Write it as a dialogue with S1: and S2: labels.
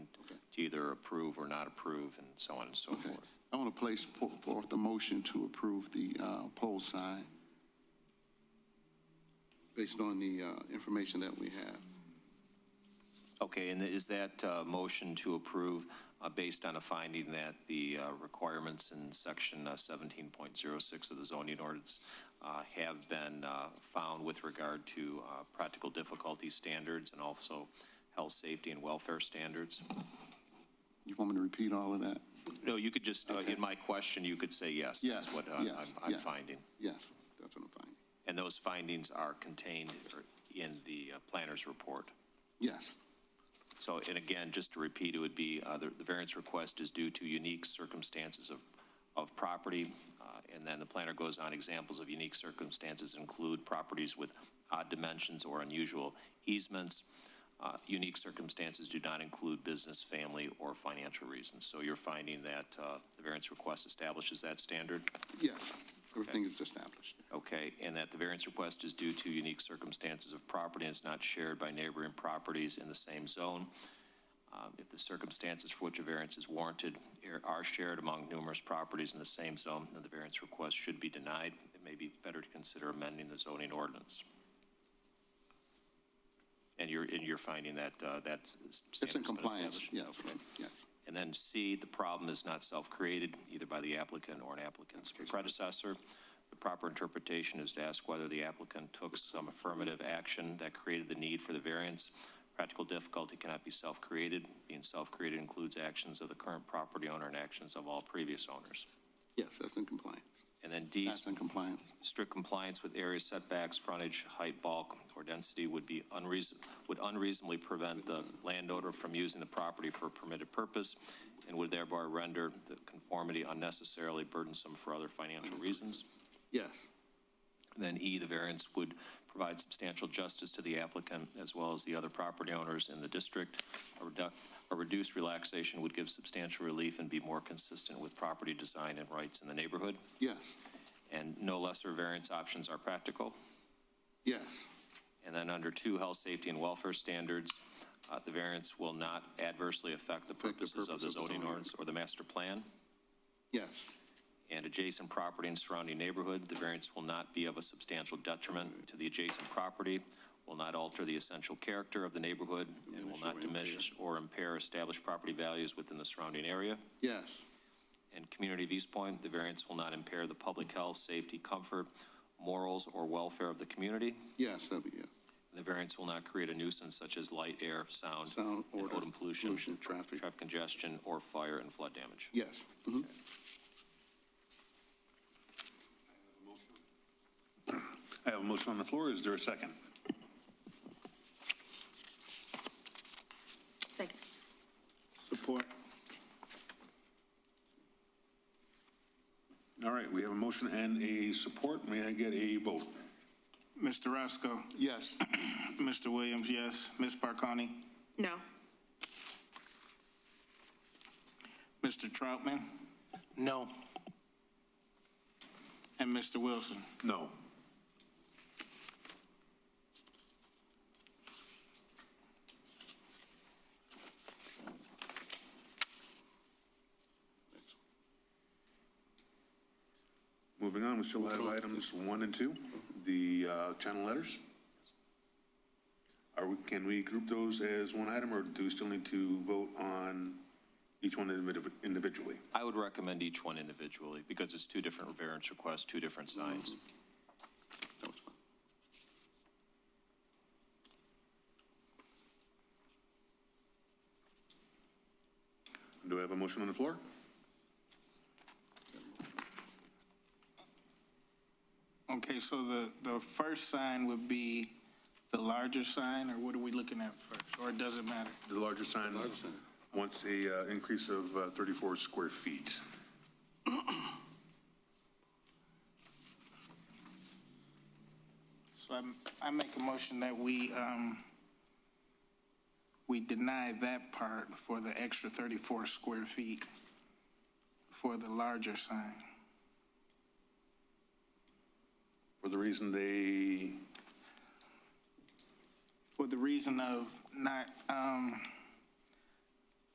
S1: to either approve or not approve, and so on and so
S2: Okay.
S1: forth.
S2: I want to place po- forth a motion to approve the uh, pole sign based on the uh, information that we have.
S1: Okay, and is that uh, motion to approve uh, based on a finding that the uh, requirements in Section uh, 17.06 of the zoning ordinance uh, have been uh, found with regard to uh, practical difficulty standards and also health, safety, and welfare standards?
S2: You want me to repeat all of that?
S1: No, you could just, uh, in my question, you could say yes.
S2: Yes,
S1: That's what I'm-
S2: yes,
S1: I'm I'm
S2: yes.
S1: finding.
S2: Yes, that's what I'm finding.
S1: And those findings are contained or in the uh, planner's report.
S2: Yes,
S1: So, and again, just to repeat, it would be, uh, the the variance request is due to unique circumstances of, of property, uh, and then the planner goes on, examples of unique circumstances include properties with odd dimensions or unusual easements. Uh, Unique circumstances do not include business, family, or financial reasons. So you're finding that uh, the variance request establishes that standard?
S2: yes, everything is established.
S1: Okay, and that the variance request is due to unique circumstances of property and is not shared by neighboring properties in the same zone. Um, If the circumstances for which a variance is warranted are- are shared among numerous properties in the same zone, then the variance request should be denied. It may be better to consider amending the zoning ordinance. And you're, and you're finding that uh, that's.
S2: It's in
S1: standard's been
S2: compliance,
S1: established?
S2: yes,
S1: Okay.
S2: yes.
S1: And then C, the problem is not self-created, either by the applicant or an applicant's predecessor. The proper interpretation is to ask whether the applicant took some affirmative action that created the need for the variance. Practical difficulty cannot be self-created. Being self-created includes actions of the current property owner and actions of all previous owners.
S2: Yes, that's in compliance.
S1: And then D,
S2: That's in compliance.
S1: strict compliance with area setbacks, frontage, height, bulk, or density would be unreason, would unreasonably prevent the landowner from using the property for a permitted purpose and would thereby render the conformity unnecessarily burdensome for other financial reasons.
S2: Yes,
S1: Then E, the variance would provide substantial justice to the applicant as well as the other property owners in the district. A reduc- A reduced relaxation would give substantial relief and be more consistent with property design and rights in the neighborhood.
S2: yes,
S1: And no lesser variance options are practical.
S2: yes,
S1: And then under two, health, safety, and welfare standards, uh, the variance will not adversely affect the
S2: Affect the
S1: purposes of
S2: purpose
S1: the
S2: of the
S1: zoning
S2: zoning.
S1: ordinance or the master plan.
S2: yes,
S1: And adjacent property and surrounding neighborhood, the variance will not be of a substantial detriment to the adjacent property, will not alter the essential character of the neighborhood, and will
S2: Diminish
S1: not
S2: or impair.
S1: diminish or impair established property values within the surrounding area.
S2: yes,
S1: And community of East Point, the variance will not impair the public health, safety, comfort, morals, or welfare of the community.
S2: yes, that'd be yes.
S1: The variance will not create a nuisance such as light, air, sound,
S2: Sound,
S1: and
S2: odor,
S1: odor pollution,
S2: pollution, traffic.
S1: traffic congestion, or fire and flood damage.
S2: Yes. mhm.
S3: I have a motion on the floor. Is there a second?
S4: Second.
S2: Support.
S3: All right, we have a motion and a support. May I get a vote?
S5: Mr. Roscoe?
S2: Yes,
S5: Mr. Williams, yes. Ms. Barconi?
S4: No.
S5: Mr. Troutman? No. And Mr. Wilson?
S3: No. Moving on, we still have items one and two, the uh, channel letters. Are we, can we group those as one item, or do we still need to vote on each one individ- individually?
S1: I would recommend each one individually, because it's two different variance requests, two different signs.
S2: Mm-hmm. that was fine.
S3: Do I have a motion on the floor?
S5: Okay, so the, the first sign would be the larger sign, or what are we looking at first? Or does it matter?
S3: The larger sign wants a uh, increase of uh, 34 square feet.
S5: So I'm, I make a motion that we, um, we deny that part for the extra 34 square feet for the larger sign.
S3: For the reason they,
S5: for the reason of not, um,